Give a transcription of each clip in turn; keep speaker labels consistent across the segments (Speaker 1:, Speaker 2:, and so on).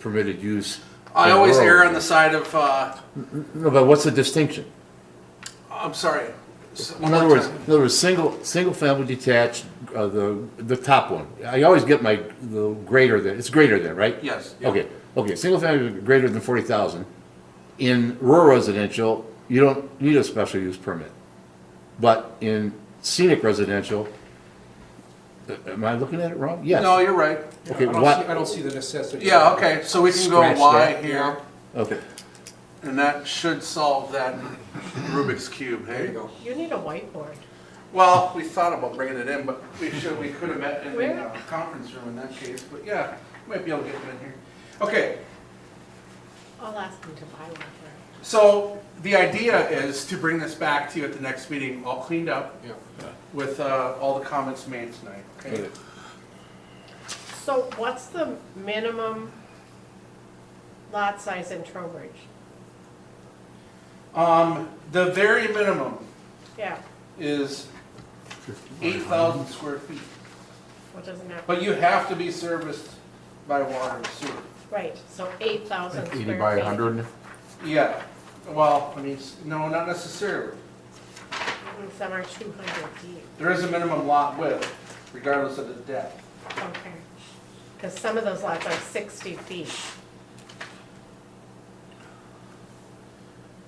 Speaker 1: permitted use.
Speaker 2: I
Speaker 1: in
Speaker 2: always err
Speaker 1: rural
Speaker 2: on the
Speaker 1: areas.
Speaker 2: side of, uh,
Speaker 1: No, but what's the distinction?
Speaker 2: I'm sorry. S- one
Speaker 1: In
Speaker 2: more
Speaker 1: other words,
Speaker 2: time.
Speaker 1: in other words, single, single-family detached, uh, the, the top one. I always get my, the greater than, it's greater than, right?
Speaker 2: Yes, yeah.
Speaker 1: Okay, okay, single-family greater than forty thousand. In rural residential, you don't need a special use permit. But in scenic residential, uh, am I looking at it wrong? Yes.
Speaker 2: No, you're right.
Speaker 1: Okay,
Speaker 3: I don't
Speaker 1: what-
Speaker 3: see- I don't see the necessity.
Speaker 2: Yeah, okay, so we can go
Speaker 1: Scratch
Speaker 2: Y
Speaker 1: that.
Speaker 2: here,
Speaker 1: Okay.
Speaker 2: and that should solve that Rubik's Cube,
Speaker 3: There you
Speaker 2: hey?
Speaker 3: go.
Speaker 4: You need a whiteboard.
Speaker 2: Well, we thought about bringing it in, but we should, we could have met in the
Speaker 4: Where?
Speaker 2: uh, conference room in that case, but yeah, might be able to get them in here. Okay,
Speaker 4: I'll ask them to buy one for
Speaker 2: so the idea is to bring this back to you at the next meeting, all cleaned up
Speaker 3: Yeah.
Speaker 2: with uh, all the comments made tonight, okay?
Speaker 1: Okay.
Speaker 4: it. So what's the minimum lot size in Trowbridge?
Speaker 2: Um, the very minimum
Speaker 4: Yeah,
Speaker 2: is eight thousand square feet,
Speaker 4: what doesn't happen?
Speaker 2: but you have to be serviced by water and sewer.
Speaker 4: Right, so eight thousand square feet.
Speaker 5: Eighty by hundred,
Speaker 2: Yeah, well, I mean, s- no, not necessarily.
Speaker 4: And Mm-hmm, Some are two hundred deep,
Speaker 2: There is a minimum lot width, regardless of the depth.
Speaker 4: okay. Because some of those lots are sixty feet.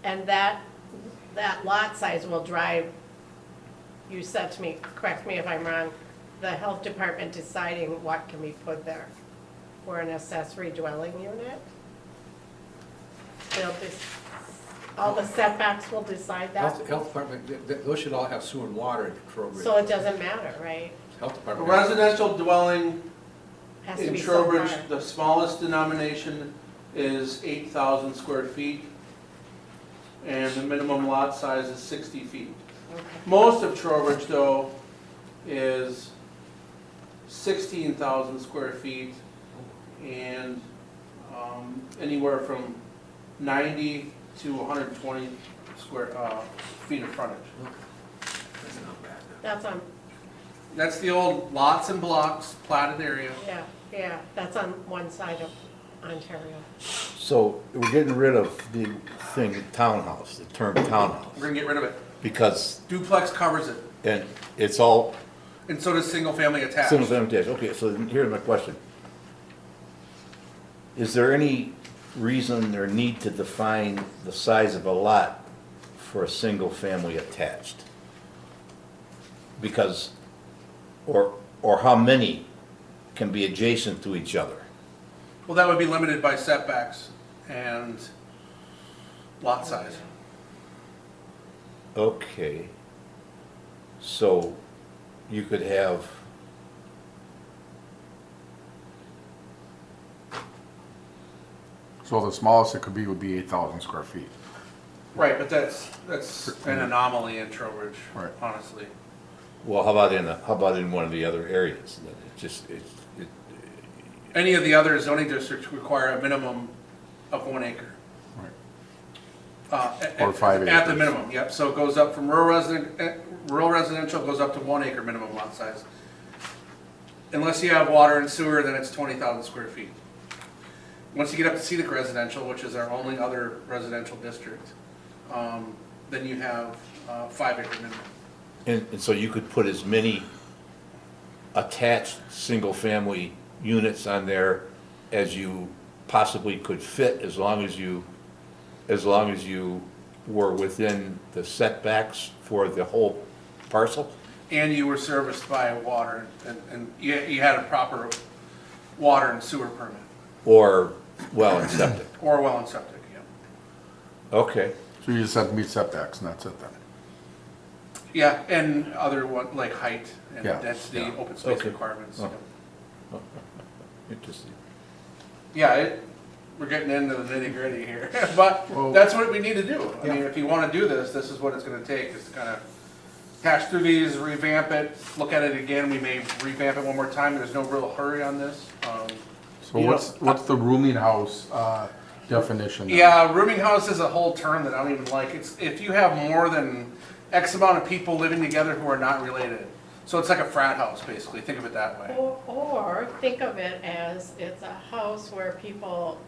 Speaker 4: And that, that lot size will drive, you said to me, correct me if I'm wrong, the health department deciding what can be put there for an accessory dwelling unit? They'll just, all the setbacks will decide that,
Speaker 3: Health, health department, th- th- those should all have sewer and water in Trowbridge.
Speaker 4: so it doesn't matter, right?
Speaker 3: Health
Speaker 2: A
Speaker 3: department.
Speaker 2: residential dwelling
Speaker 4: Has to
Speaker 2: in
Speaker 4: be so
Speaker 2: Trowbridge,
Speaker 4: large.
Speaker 2: the smallest denomination is eight thousand square feet, and the minimum lot size is sixty feet.
Speaker 4: Okay.
Speaker 2: Most of Trowbridge, though, is sixteen thousand square feet and um, anywhere from ninety to one hundred and twenty square, uh, feet of frontage.
Speaker 3: That's not bad.
Speaker 4: That's on
Speaker 2: That's the old lots and blocks platted area.
Speaker 4: Yeah, yeah, that's on one side of Ontario.
Speaker 1: So we're getting rid of the thing, townhouse, the term
Speaker 2: We're
Speaker 1: townhouse,
Speaker 2: gonna get rid of it.
Speaker 1: because,
Speaker 2: Duplex covers it,
Speaker 1: and it's all
Speaker 2: and so does single-family attached.
Speaker 1: Single family detached, okay, so then here's my question. Is there any reason or need to define the size of a lot for a single family attached? Because, or, or how many can be adjacent to each other?
Speaker 2: Well, that would be limited by setbacks and lot size.
Speaker 1: Okay. So you could have.
Speaker 5: so the smallest it could be would be eight thousand square feet.
Speaker 2: Right, but that's, that's an anomaly in Trowbridge,
Speaker 5: Right.
Speaker 2: honestly.
Speaker 1: Well, how about in, a- how about in one of the other areas? It just, it, it,
Speaker 2: Any of the other zoning districts require a minimum of one acre.
Speaker 5: Right.
Speaker 2: Uh, at-
Speaker 5: Or
Speaker 2: at-
Speaker 5: five
Speaker 2: At the
Speaker 5: acres.
Speaker 2: minimum, yep, so it goes up from rural resident, eh, rural residential goes up to one acre minimum lot size. Unless you have water and sewer, then it's twenty thousand square feet. Once you get up to scenic residential, which is our only other residential district, um, then you have, uh, five acre minimum.
Speaker 1: And, and so you could put as many attached, single-family units on there as you possibly could fit, as long as you, as long as you were within the setbacks for the whole parcel?
Speaker 2: And you were serviced by water and, and you, you had a proper water and sewer permit,
Speaker 1: Or, well, and septic,
Speaker 2: or well and septic, yeah.
Speaker 1: okay.
Speaker 5: So you just have to meet setbacks and that's it then.
Speaker 2: Yeah, and other one, like height and
Speaker 5: Yeah,
Speaker 2: density,
Speaker 5: yeah.
Speaker 2: open space
Speaker 1: Okay.
Speaker 2: requirements.
Speaker 1: Oh.
Speaker 2: yeah.
Speaker 1: Interesting.
Speaker 2: Yeah, it, we're getting into the nitty gritty here, but
Speaker 5: Well-
Speaker 2: that's what we need to do. I mean,
Speaker 3: Yeah.
Speaker 2: if you wanna do this, this is what it's gonna take, is to kinda hash through these, revamp it, look at it again, we may revamp it one more time, there's no real hurry on this. Um,
Speaker 5: So
Speaker 2: You
Speaker 5: what's, what's the rooming house, uh, definition? then?
Speaker 2: Yeah, rooming house is a whole term that I don't even like. It's if you have more than X amount of people living together who are not related. So it's like a frat house, basically, think of it that way.
Speaker 4: Or, or think of it as it's a house where people